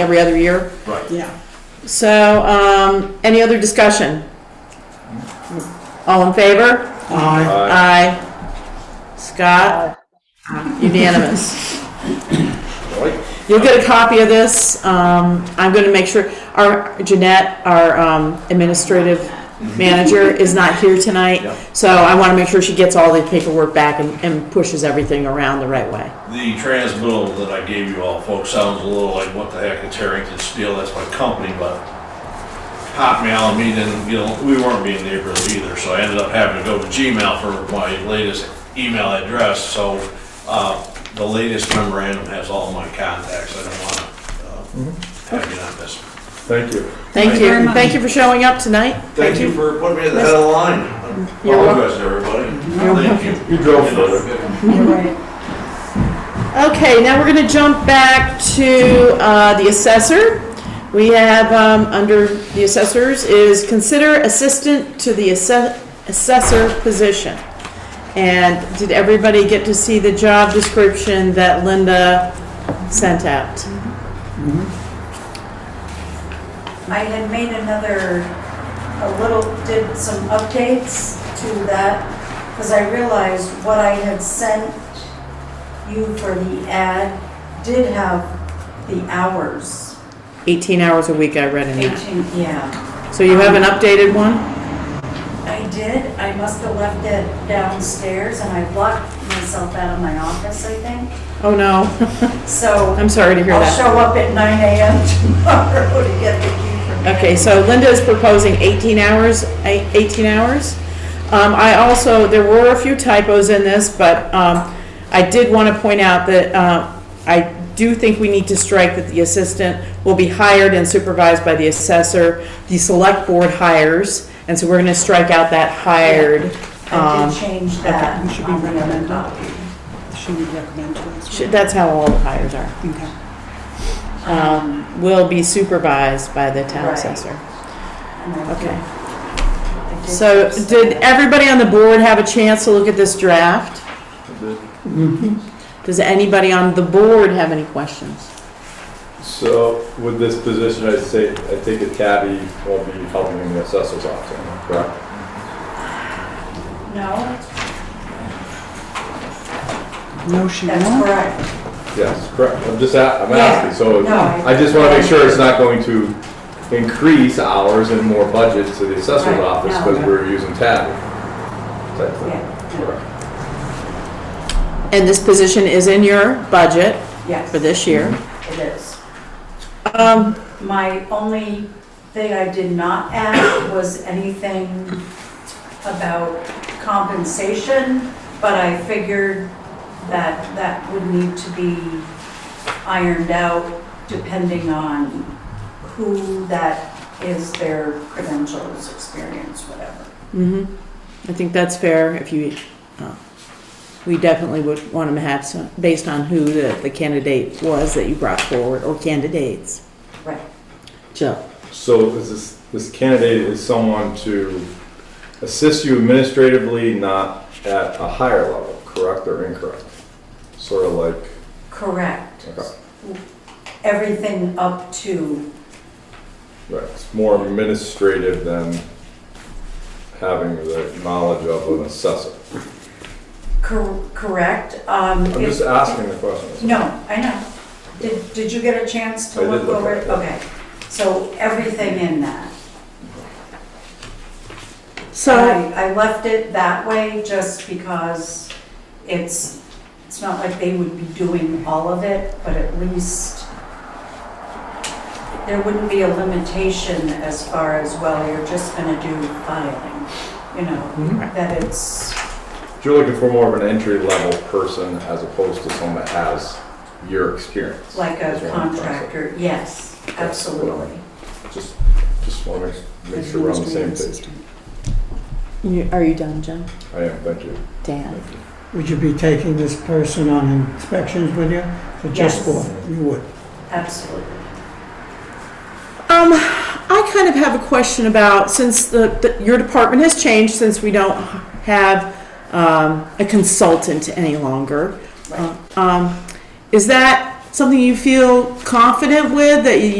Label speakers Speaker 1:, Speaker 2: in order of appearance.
Speaker 1: every other year.
Speaker 2: Right.
Speaker 3: Yeah.
Speaker 1: So, um, any other discussion? All in favor?
Speaker 3: Aye.
Speaker 2: Uh,
Speaker 1: Aye. Scott? Unanimous.
Speaker 2: right.
Speaker 1: You'll get a copy of this. Um, I'm gonna make sure, our, Jeanette, our, um, administrative manager is not here tonight.
Speaker 2: Yeah.
Speaker 1: So I wanna make sure she gets all the paperwork back and, and pushes everything around the right way.
Speaker 2: The transmittal that I gave you all, folks, sounds a little like, what the heck, it's Harrington Steel, that's my company, but Hotmail, I mean, and, you know, we weren't being neighborly either, so I ended up having to go to Gmail for my latest email address, so, uh, the latest memorandum has all my contacts, I don't wanna, uh, have you not miss.
Speaker 4: Thank you.
Speaker 1: Thank
Speaker 2: Thank
Speaker 3: you very
Speaker 1: you.
Speaker 3: much.
Speaker 1: Thank you for showing up tonight.
Speaker 2: Thank you for putting me at the head of the line. I
Speaker 1: You're welcome.
Speaker 2: Apologize to everybody. Thank you. uh,
Speaker 4: You drove further.
Speaker 3: You're right.
Speaker 1: Okay, now we're gonna jump back to, uh, the assessor. We have, um, under the assessors is consider assistant to the asse- assessor position. And did everybody get to see the job description that Linda sent out?
Speaker 5: I had made another, a little, did some updates to that, because I realized what I had sent you for the ad did have the hours,
Speaker 1: Eighteen hours a week, I read in that.
Speaker 5: 18, yeah.
Speaker 1: So you have an updated one?
Speaker 5: I did, I must have left it downstairs, and I blocked myself out of my office, I think,
Speaker 1: Oh, no.
Speaker 5: so
Speaker 1: I'm sorry to hear
Speaker 5: I'll
Speaker 1: that.
Speaker 5: show up at 9 AM tomorrow to get the key from
Speaker 1: Okay, so Linda is proposing 18 hours, eight- 18 hours. Um, I also, there were a few typos in this, but um, I did want to point out that uh, I do think we need to strike that the assistant will be hired and supervised by the assessor. The select board hires, and so we're going to strike out that hired.
Speaker 5: I
Speaker 1: um,
Speaker 5: did change that
Speaker 3: okay, should be
Speaker 5: on the other
Speaker 3: recommended.
Speaker 5: copy.
Speaker 3: She would recommend to us.
Speaker 1: sh- That's how all the hires are.
Speaker 3: Okay.
Speaker 1: Um, Will be supervised by the town
Speaker 5: Right.
Speaker 1: assessor.
Speaker 5: And I did-
Speaker 1: Okay.
Speaker 5: I did
Speaker 1: So
Speaker 5: just
Speaker 1: did
Speaker 5: that.
Speaker 1: everybody on the board have a chance to look at this draft? Does anybody on the board have any questions?
Speaker 4: So with this position, I say, I take it Kathy will be helping in the assessor's office, correct?
Speaker 5: No,
Speaker 3: No, she
Speaker 5: that's
Speaker 3: won't.
Speaker 5: correct.
Speaker 4: Yes, correct. I'm just, a- I'm
Speaker 5: Yeah.
Speaker 4: asking, so
Speaker 5: No, I-
Speaker 4: I just want to make sure it's not going to increase hours and more budget to the assessor's
Speaker 5: Right,
Speaker 4: office
Speaker 5: no.
Speaker 4: because we're using Tabby. Type thing.
Speaker 5: Yeah,
Speaker 4: Correct.
Speaker 1: And this position is in your budget
Speaker 5: Yes,
Speaker 1: for this year.
Speaker 5: it is.
Speaker 1: Um,
Speaker 5: My only thing I did not add was anything about compensation, but I figured that that would need to be ironed out depending on who that is, their credentials, experience, whatever.
Speaker 1: mhm. I think that's fair if you, uh, we definitely would want them to have some, based on who the the candidate was that you brought forward, or candidates.
Speaker 5: Right.
Speaker 1: Jill?
Speaker 4: So is this, this candidate is someone to assist you administratively, not at a higher level, correct or incorrect? Sort of like
Speaker 5: Correct.
Speaker 4: Okay.
Speaker 5: Everything up to,
Speaker 4: Right, it's more administrative than having the knowledge of an assessor.
Speaker 5: cor- correct. Um, I'm
Speaker 4: I'm just asking the question.
Speaker 5: No, I know. Did, did you get a chance to
Speaker 4: I did
Speaker 5: look
Speaker 4: look
Speaker 5: over
Speaker 4: at
Speaker 5: it?
Speaker 4: it.
Speaker 5: Okay, so everything in that.
Speaker 1: So,
Speaker 5: And I, I left it that way just because it's, it's not like they would be doing all of it, but at least there wouldn't be a limitation as far as, well, you're just gonna do filing, you know,
Speaker 1: Mhm.
Speaker 5: that it's,
Speaker 4: You're looking for more of an entry-level person as opposed to someone that has your experience.
Speaker 5: Like
Speaker 4: That's
Speaker 5: a
Speaker 4: what I'm trying to say.
Speaker 5: contractor, yes, absolutely.
Speaker 4: Just, just want to make sure we're on the same
Speaker 3: Administrative
Speaker 4: page.
Speaker 3: assistant.
Speaker 1: you- are you done, Jill?
Speaker 4: I am, thank you.
Speaker 1: Dan?
Speaker 6: Would you be taking this person on inspections with you? For just
Speaker 5: Yes.
Speaker 6: for, you would?
Speaker 5: Absolutely.
Speaker 1: Um, I kind of have a question about, since the, the- your department has changed, since we don't have um, a consultant any longer.
Speaker 5: Right.
Speaker 1: Um, Is that something you feel confident with, that you